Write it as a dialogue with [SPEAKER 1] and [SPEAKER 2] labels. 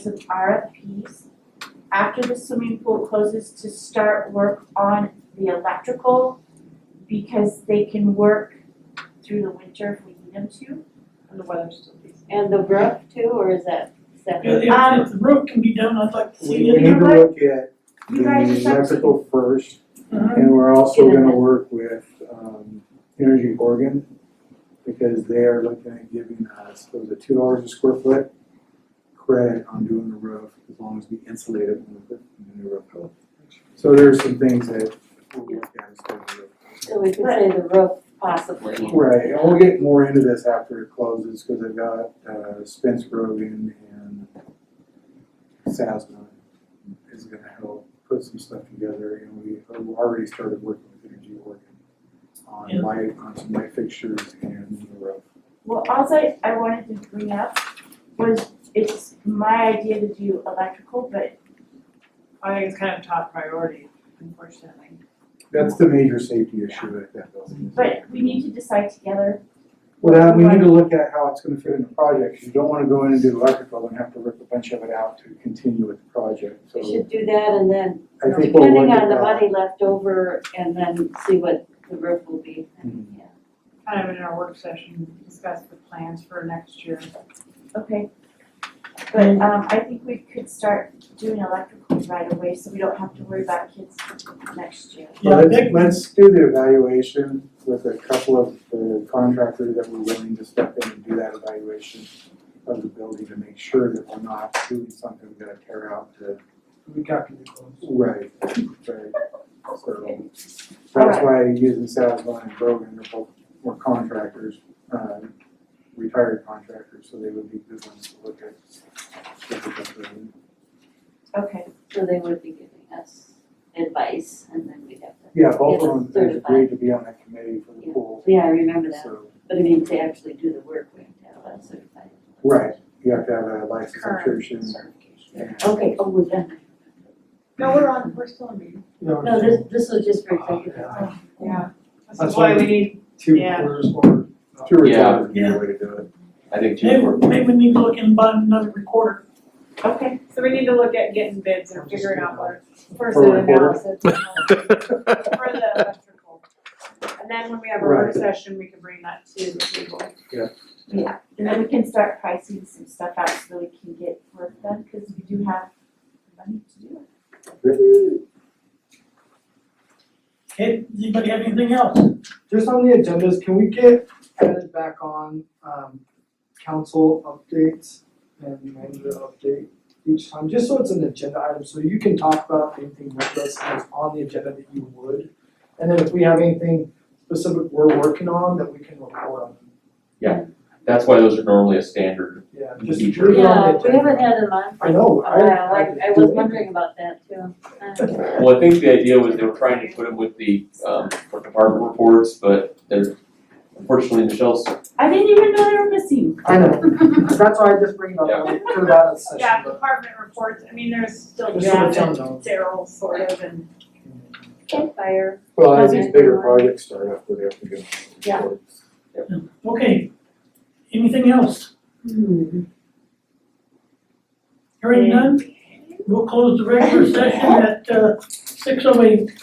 [SPEAKER 1] of RFPs. After the swimming pool closes to start work on the electrical because they can work through the winter if we need them to.
[SPEAKER 2] And the weather's still decent.
[SPEAKER 3] And the roof too, or is that
[SPEAKER 4] Yeah,
[SPEAKER 3] separate?
[SPEAKER 1] Um,
[SPEAKER 4] if, if the roof can be done, I'd like to
[SPEAKER 5] We
[SPEAKER 4] see
[SPEAKER 5] need
[SPEAKER 4] it.
[SPEAKER 1] You
[SPEAKER 5] to
[SPEAKER 1] guys-
[SPEAKER 5] look at
[SPEAKER 1] You guys just
[SPEAKER 5] the
[SPEAKER 1] have to-
[SPEAKER 5] electrical first,
[SPEAKER 2] mm-hmm.
[SPEAKER 4] Mhm.
[SPEAKER 5] and we're also
[SPEAKER 3] Get it
[SPEAKER 5] gonna
[SPEAKER 3] done.
[SPEAKER 5] work with, um, Energy Oregon, because they are looking at giving us, what was it, two dollars a square foot credit on doing the roof, as long as we insulate it when we put the new roof up. So there's some things that we'll look at as part of the roof.
[SPEAKER 3] So we could say the roof possibly.
[SPEAKER 5] Right, and we'll get more into this after it closes, cause I've got, uh, Spence Rogan and Sasma is gonna help put some stuff together, and we we already started working with Energy Oregon on
[SPEAKER 4] Yeah.
[SPEAKER 5] light, on some light fixtures and the roof.
[SPEAKER 1] Well, alls I I wanted to bring up was it's my idea to do electrical, but
[SPEAKER 2] I think it's kind of top priority, unfortunately.
[SPEAKER 5] That's the major safety issue at that building.
[SPEAKER 1] but we need to decide together.
[SPEAKER 5] Well, we need to look at how it's gonna fit in the project, 'cause you don't wanna go in and do electrical and have to rip a bunch of it out to continue with the project, so
[SPEAKER 3] We should do that and then
[SPEAKER 5] I think we'll look
[SPEAKER 3] depending
[SPEAKER 5] at
[SPEAKER 3] on the
[SPEAKER 5] that.
[SPEAKER 3] money left over and then see what the roof will be.
[SPEAKER 5] Mhm.
[SPEAKER 3] Yeah.
[SPEAKER 2] Kind of in our work session, discuss the plans for next year.
[SPEAKER 1] Okay. But um I think we could start doing electrical right away, so we don't have to worry about kids next year.
[SPEAKER 4] Yeah, I
[SPEAKER 5] Let's-
[SPEAKER 4] think
[SPEAKER 5] Let's do the evaluation with a couple of the contractors that were willing to step in and do that evaluation of the building to make sure that we're not doing something we're gonna tear out to.
[SPEAKER 4] we got to be close.
[SPEAKER 5] Right. Right, so that's
[SPEAKER 1] Alright.
[SPEAKER 5] why using Sasline and Brogan, they're both, were contractors, um, retired contractors, so they would be good ones to look at. look at that building.
[SPEAKER 1] Okay,
[SPEAKER 3] So they would be giving us advice and then we'd have to,
[SPEAKER 5] Yeah, both
[SPEAKER 3] Yeah,
[SPEAKER 5] of them have
[SPEAKER 3] certified.
[SPEAKER 5] agreed to be on that committee for the
[SPEAKER 3] Yeah.
[SPEAKER 5] pool,
[SPEAKER 3] yeah, I remember that.
[SPEAKER 5] so.
[SPEAKER 3] But I mean, to actually do the work, we have to have that certified.
[SPEAKER 5] Right, you have to have a license
[SPEAKER 2] Current
[SPEAKER 5] subscription.
[SPEAKER 2] Certification.
[SPEAKER 5] and-
[SPEAKER 3] Okay, oh, we're done.
[SPEAKER 2] No, we're on, we're still in meeting.
[SPEAKER 3] No, this, this was just for executive.
[SPEAKER 4] Yeah.
[SPEAKER 2] Yeah. This is
[SPEAKER 4] That's
[SPEAKER 2] why
[SPEAKER 4] why-
[SPEAKER 2] we need,
[SPEAKER 4] Two
[SPEAKER 2] Yeah.
[SPEAKER 4] quarters or.
[SPEAKER 5] Two or three
[SPEAKER 6] Yeah.
[SPEAKER 5] would be the way to do it.
[SPEAKER 6] I think two
[SPEAKER 4] Maybe,
[SPEAKER 6] were.
[SPEAKER 4] maybe we need to look in by another recorder.
[SPEAKER 1] okay,
[SPEAKER 2] so we need to look at getting bids and figuring out what, first
[SPEAKER 5] For a
[SPEAKER 2] an
[SPEAKER 5] recorder?
[SPEAKER 2] analysis. For the electrical. And then when we have our work
[SPEAKER 5] Right.
[SPEAKER 2] session, we can bring that to the table.
[SPEAKER 1] yeah, and then we can start pricing some stuff out so we can get work done, cause we do have money to do it.
[SPEAKER 4] Okay, anybody have anything else?
[SPEAKER 7] Just on the agendas, can we get added back on, um, council updates and manager update each time? Just so it's an agenda item, so you can talk about anything with us that's on the agenda that you would. And then if we have anything specific we're working on that we can report on,
[SPEAKER 6] That's why those are normally a standard.
[SPEAKER 7] yeah, just leave
[SPEAKER 6] Feature.
[SPEAKER 7] it on
[SPEAKER 3] Yeah,
[SPEAKER 7] the
[SPEAKER 3] we
[SPEAKER 7] agenda.
[SPEAKER 3] haven't had a month.
[SPEAKER 7] I know, I.
[SPEAKER 3] Oh, wow, I, I was wondering about that too. Uh,
[SPEAKER 6] Well, I think the idea was they were trying to put them with the, um, for department reports, but they're, unfortunately, Michelle's,
[SPEAKER 1] I didn't even know they were missing.
[SPEAKER 7] I know, that's why I just bring it up for that session,
[SPEAKER 2] Yeah,
[SPEAKER 7] but
[SPEAKER 2] department reports, I mean, there's still
[SPEAKER 7] Just so
[SPEAKER 2] Jeff
[SPEAKER 7] it's on
[SPEAKER 2] and
[SPEAKER 7] note.
[SPEAKER 2] Daryl sort of and.
[SPEAKER 3] Fire.
[SPEAKER 5] Well, as these bigger projects start up, we have to go.
[SPEAKER 1] Yeah.
[SPEAKER 4] Okay, anything else? Hearing none, we'll close the regular session at, uh, six oh eight.